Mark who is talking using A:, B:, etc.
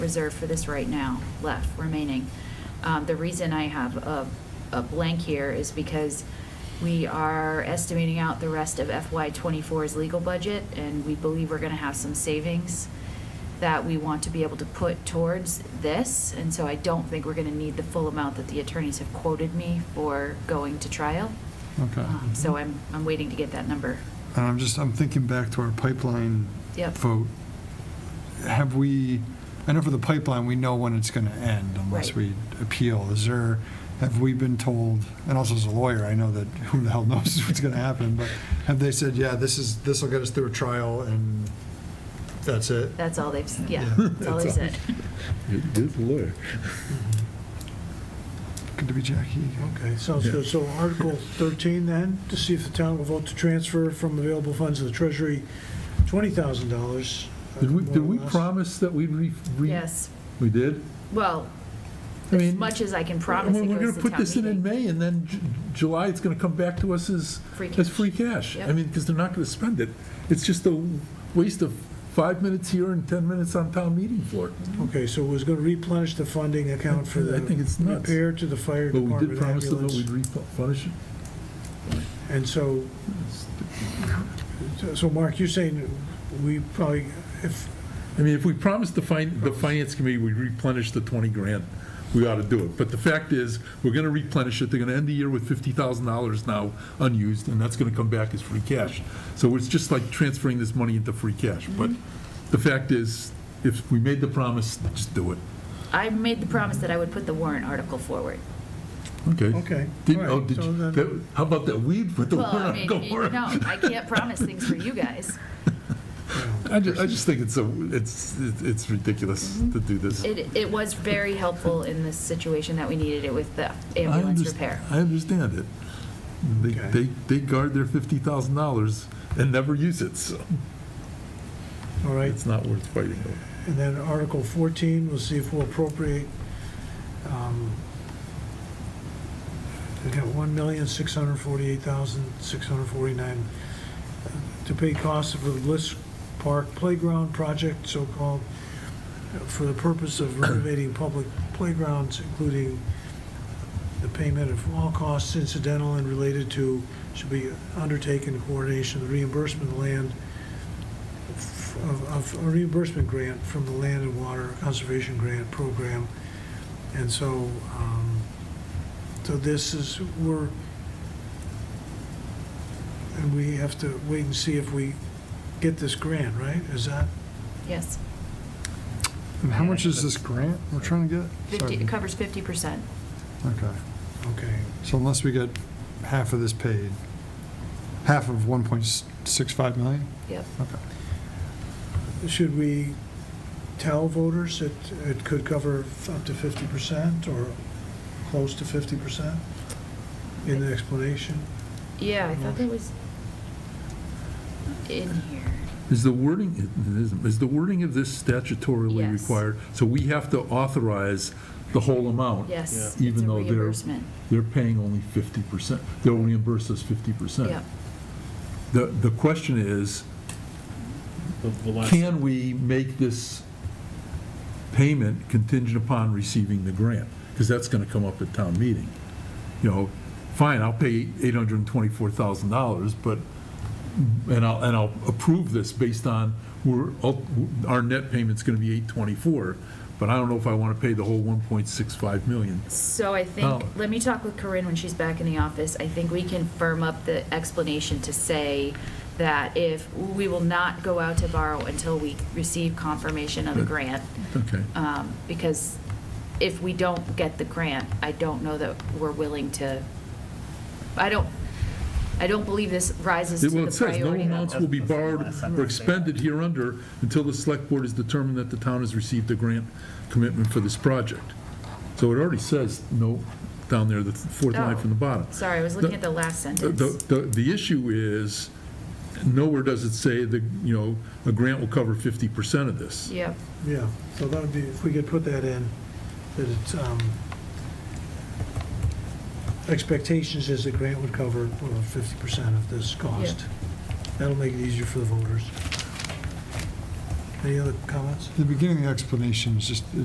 A: reserved for this right now, left, remaining. Um, The reason I have a, a blank here is because we are estimating out the rest of FY '24's legal budget, and we believe we're gonna have some savings that we want to be able to put towards this, and so I don't think we're gonna need the full amount that the attorneys have quoted me for going to trial.
B: Okay.
A: Um,
C: Mm-hmm.
A: So I'm, I'm waiting to get that number.
B: And I'm just, I'm thinking back to our pipeline
A: Yep.
B: vote. Have we, I know for the pipeline, we know when it's going to end unless
A: Right.
B: we appeal. Is there, have we been told, and also as a lawyer, I know that who the hell knows what's going to happen, but have they said, yeah, this is, this will get us through a trial and that's it?
A: That's all they've, s- yeah,
B: Yeah.
A: that's all they
B: That's all.
A: said.
C: Good lawyer.
B: Good to be Jackie.
D: Okay, sounds good. So Article 13 then, to see if the town will vote to transfer from available funds of the treasury $20,000. uh,
C: Did we,
D: more
C: did
D: or
C: we
D: less.
C: promise that we'd re? re-
A: Yes,
C: We did?
A: well,
C: I
A: as
C: mean,
A: much as I can promise
C: Well,
A: it
C: We're
A: goes
C: gonna
A: to
C: put
A: town
C: this in in
A: meeting.
C: May, and then Ju- July, it's gonna come back to us as,
A: Free
C: as
A: cash.
C: free cash. I
A: Yep.
C: mean, because they're not gonna spend it. It's just a waste of five minutes here and 10 minutes on town meeting floor.
D: Okay, so it was going to replenish the funding account for the
C: I think it's nuts.
D: repair to the fire
C: But we did
D: department
C: promise them that we'd
D: ambulance.
C: replenish it.
D: And so, so Mark, you're saying we probably, if,
C: I mean, if we promised the fin, the finance committee we'd replenish the 20 grand, we ought to do it. But the fact is, we're going to replenish it, they're going to end the year with $50,000 now unused, and that's going to come back as free cash. So it's just like transferring this money into free cash. But
D: Mm-hmm.
C: the fact is, if we made the promise, just do it.
A: I made the promise that I would put the warrant article forward.
C: Okay.
D: okay.
C: Did,
D: all
C: oh,
D: right,
C: did
D: so
C: you,
D: then-
C: that- how about that weed with the
A: Well, I
C: warrant?
A: mean,
C: Go
A: you-
C: for it.
A: no, I can't promise things for you guys.
C: I just, I just think it's, a it's, it's ridiculous
D: Mm-hmm.
C: to do this.
A: It, it was very helpful in the situation that we needed it with the
C: I
A: ambulance
C: underst-
A: repair.
C: I understand it. They,
D: Okay.
C: they, they guard their fifty thousand dollars and never use it, so
D: All right,
C: it's not worth fighting over.
D: And then Article 14, we'll see if we'll appropriate, um, we got 1648649 uh, to pay costs for the Bliss Park Playground Project, so-called, uh, for the purpose of renovating public playgrounds, including the payment of all costs incidental and related to, should be undertaken in coordination, with reimbursement of land of, of a reimbursement grant from the Land and Water Conservation Grant Program. And so, um, so this is, we're, and we have to wait and see if we get this grant, right? Is that,
A: Yes,
B: And how much is this grant we're trying to get?
A: fifty,
B: Sorry.
A: it covers fifty percent.
B: Okay.
D: okay,
B: So unless we get half of this paid, half of 1.65 million?
A: Yep.
B: Okay.
D: should we tell voters it, it could cover up to 50% or close to 50% in the explanation?
A: Yeah, I thought that was in here.
C: Is the wording, it isn't. is the wording of this statutorily
A: Yes.
C: required? So we have to authorize the whole amount?
A: Yes, it's a
C: Even though they're,
A: reimbursement.
C: they're paying only fifty percent, they'll reimburse us fifty percent.
A: Yep.
C: The, the question is, can we make this payment contingent upon receiving the grant? Because that's going to come up at town meeting. You know, fine, I'll pay $824,000, but, and I'll, and I'll approve this based on, we're, our net payment's going to be 824, but I don't know if I want to pay the whole 1.65 million.
A: So I think,
C: Oh.
A: let me talk with Corinne when she's back in the office. I think we can firm up the explanation to say that if, we will not go out to borrow until we receive confirmation of the
C: Good.
A: grant.
C: Okay.
A: um, Because if we don't get the grant, I don't know that we're willing to, I don't, I don't believe this rises to
C: Well,
A: the
C: it says, no
A: priority
C: amounts
A: level.
C: will be borrowed or expended hereunder until the select board has determined that the town has received a grant commitment for this project. So it already says, no, down there, the fourth
A: Oh.
C: line from the bottom.
A: Sorry, I was looking at the last
C: The,
A: sentence.
C: the, the issue is, nowhere does it say that, you know, a grant will cover 50% of this.
A: Yep,
D: Yeah, so that would be, if we could put that in, that it's, um, expectations is the grant would cover fifty percent of this cost. That'll make it easier for the voters. Any other comments?
B: The beginning of the explanation is just,